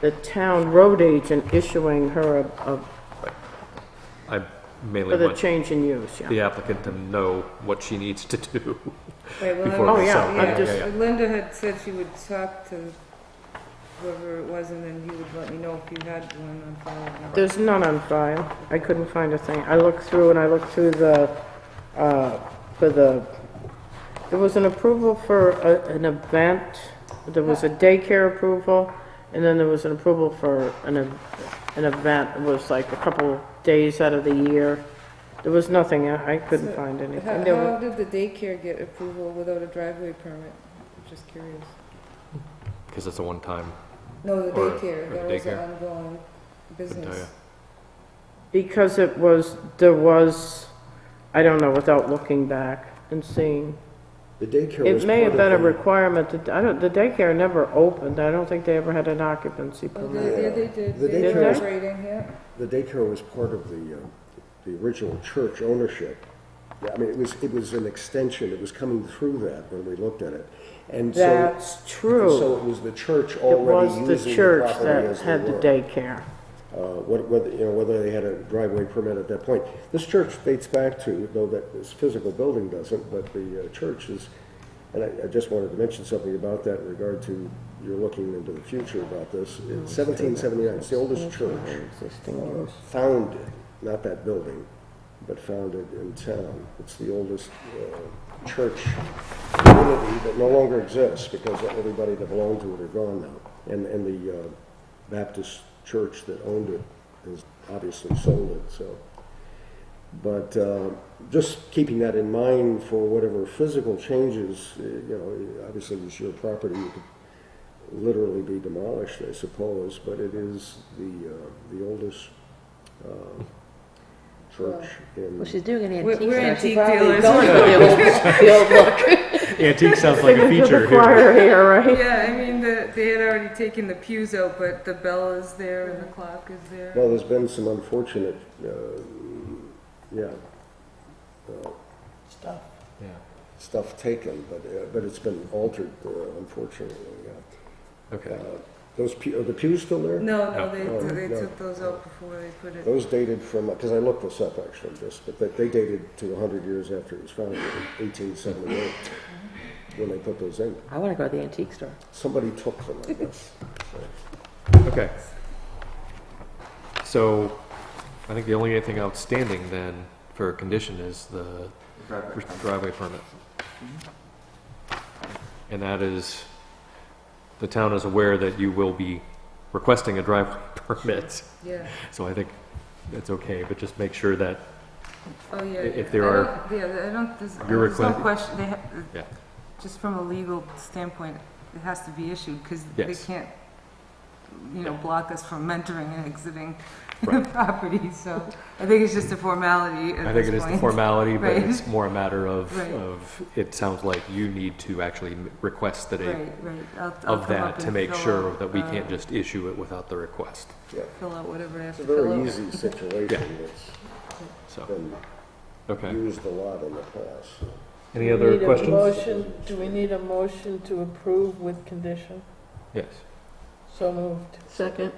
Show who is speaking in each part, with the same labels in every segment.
Speaker 1: the town road agent issuing her a, a-
Speaker 2: I
Speaker 1: for
Speaker 2: mainly
Speaker 1: the
Speaker 2: want
Speaker 1: change in use, yeah.
Speaker 2: the applicant to know what she needs to do.
Speaker 3: Right, well,
Speaker 2: Before
Speaker 3: I-
Speaker 1: Oh, we yeah, sell.
Speaker 3: yeah,
Speaker 1: I'm just-
Speaker 2: yeah, yeah.
Speaker 3: Linda had said she would talk to whoever it was, and then you would let me know if you had one on file. or not.
Speaker 1: There's none on file. I couldn't find a thing. I looked through and I looked through the, uh, for the, there was an approval for a- an event, there was a daycare approval, and then there was an approval for an, ev- an event, it was like a couple days out of the year. There was nothing, I I couldn't find anything. There
Speaker 3: How,
Speaker 1: was-
Speaker 3: how did the daycare get approval without a driveway permit? Just curious.
Speaker 2: Because it's a one-time,
Speaker 3: No, the
Speaker 2: Or-
Speaker 3: daycare,
Speaker 2: or
Speaker 3: that was an
Speaker 2: daycare.
Speaker 3: ongoing business.
Speaker 1: Because it was, there was, I don't know, without looking back and seeing.
Speaker 4: The daycare was
Speaker 1: It may have
Speaker 4: part
Speaker 1: been a
Speaker 4: of the-
Speaker 1: requirement that, I don't, the daycare never opened, I don't think they ever had an occupancy
Speaker 3: Oh,
Speaker 1: permit.
Speaker 3: they, yeah, they did,
Speaker 4: The
Speaker 3: they were
Speaker 1: daycare-
Speaker 3: operating, yeah.
Speaker 4: The daycare was part of the, uh, the original church ownership. Yeah, I mean, it was, it was an extension, it was coming through that when we looked at it. And so.
Speaker 1: That's
Speaker 4: and So
Speaker 1: true.
Speaker 4: it was the church
Speaker 1: It
Speaker 4: already
Speaker 1: was
Speaker 4: using
Speaker 1: the
Speaker 4: the
Speaker 1: church
Speaker 4: property
Speaker 1: that
Speaker 4: as
Speaker 1: had
Speaker 4: they
Speaker 1: the
Speaker 4: were.
Speaker 1: daycare.
Speaker 4: Uh, what- Whether, you know, whether they had a driveway permit at that point. This church dates back to, though that this physical building doesn't, but the uh, church is, and I, I just wanted to mention something about that in regard to, you're looking into the future about this.
Speaker 1: Oh,
Speaker 4: It's 1779, it's the oldest church
Speaker 1: Existing use.
Speaker 4: founded, not that building, but founded in town. It's the oldest uh, church community that no longer exists because everybody that belonged to it are gone now. And, and the uh, Baptist church that owned it has obviously sold it, so. But uh, just keeping that in mind for whatever physical changes, uh, you know, obviously it's your property, you could literally be demolished, I suppose, but it is the, uh, the oldest um, church in.
Speaker 5: Well, she's doing an
Speaker 3: We're-
Speaker 5: antique.
Speaker 3: we're
Speaker 5: sale.
Speaker 3: antique
Speaker 5: She probably
Speaker 3: dealers.
Speaker 5: going for the old- the old look.
Speaker 2: Antique sounds like a
Speaker 1: Singing to
Speaker 2: feature
Speaker 1: the
Speaker 2: here.
Speaker 1: choir here, right?
Speaker 3: Yeah, I mean, the, they had already taken the pews out, but the bell is there and the clock is there.
Speaker 4: Well, there's been some unfortunate, uh, yeah, uh,
Speaker 2: Yeah.
Speaker 4: stuff taken, but, uh, but it's been altered, uh, unfortunately, yeah.
Speaker 2: Okay.
Speaker 4: Uh, Those pew, are the pews still there?
Speaker 3: No, no,
Speaker 1: Oh,
Speaker 4: No.
Speaker 3: they, they
Speaker 4: No.
Speaker 3: took those out before they put it.
Speaker 4: Those dated from, because I looked this up actually just, but that- they dated to 100 years after it was founded, 1878, when they put those in.
Speaker 5: I want to go to the antique store.
Speaker 4: Somebody took them, I guess.
Speaker 2: Okay. So, I think the only thing outstanding then for a condition is the driveway permit. Mm-hmm. And that is, the town is aware that you will be requesting a driveway permit,
Speaker 3: Yeah,
Speaker 2: so I think that's okay, but just make sure that,
Speaker 3: oh, yeah.
Speaker 2: If
Speaker 3: yeah.
Speaker 2: there
Speaker 3: I
Speaker 2: are-
Speaker 3: don't- Yeah, I don't, there's,
Speaker 2: Your
Speaker 3: there's no
Speaker 2: request-
Speaker 3: question, they have,
Speaker 2: yeah,
Speaker 3: just from a legal standpoint, it has to be issued, because they
Speaker 2: Yes.
Speaker 3: can't, you know, block us from mentoring and exiting the
Speaker 2: Right.
Speaker 3: property, so I think it's just a formality
Speaker 2: I
Speaker 3: at
Speaker 2: think
Speaker 3: this
Speaker 2: it is the
Speaker 3: point.
Speaker 2: formality, but
Speaker 3: Right.
Speaker 2: it's more a matter of,
Speaker 3: Right.
Speaker 2: of, it sounds like you need to actually request that a,
Speaker 3: Right, right. I'll- I'll
Speaker 2: of
Speaker 3: come up
Speaker 2: that to
Speaker 3: and
Speaker 2: make
Speaker 3: fill
Speaker 2: sure
Speaker 3: out,
Speaker 2: that we
Speaker 3: uh,
Speaker 2: can't just issue it without the request,
Speaker 4: Yeah,
Speaker 3: Fill out whatever I have
Speaker 4: it's a
Speaker 3: to fill out.
Speaker 4: very easy situation that's
Speaker 2: so,
Speaker 4: been
Speaker 2: okay.
Speaker 4: used a lot in the past. so.
Speaker 2: Any other questions?
Speaker 4: motion- do we
Speaker 6: need a motion to approve with condition?
Speaker 2: Yes.
Speaker 6: So moved.
Speaker 1: Second.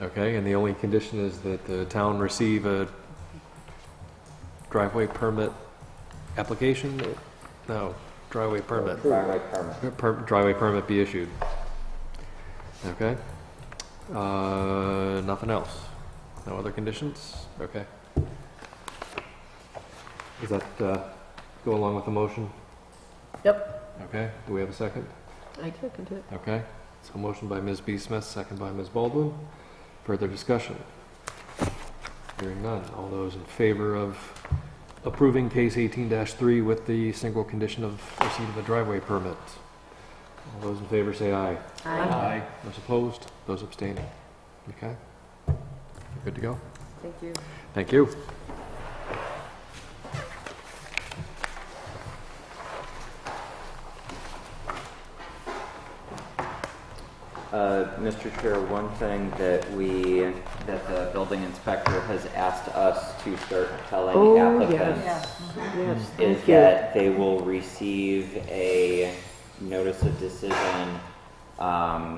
Speaker 2: Okay, and the only condition is that the town receive a driveway permit application? No, driveway permit.
Speaker 4: Approval.
Speaker 2: Per- Driveway permit be issued. Okay? Uh, Nothing else? No other conditions? Okay. Does that uh, go along with the motion? Yep. Okay, do we have a second?
Speaker 1: I second it.
Speaker 2: Okay, so motion by Ms. B. Smith, second by Ms. Baldwin. Further discussion? Hearing none. All those in favor of approving case eighteen three with the single condition of receipt of a driveway permit? All those in favor say aye. Aye. Those opposed, those abstaining. Okay? Good to go?
Speaker 3: Thank you.
Speaker 2: Thank you.
Speaker 7: Uh, Mr. Chair, one thing that we, that the building inspector has asked us to start telling
Speaker 1: Oh,
Speaker 7: applicants
Speaker 1: yes, yes,
Speaker 7: is
Speaker 1: thank you.
Speaker 7: that they will receive a notice of decision, um,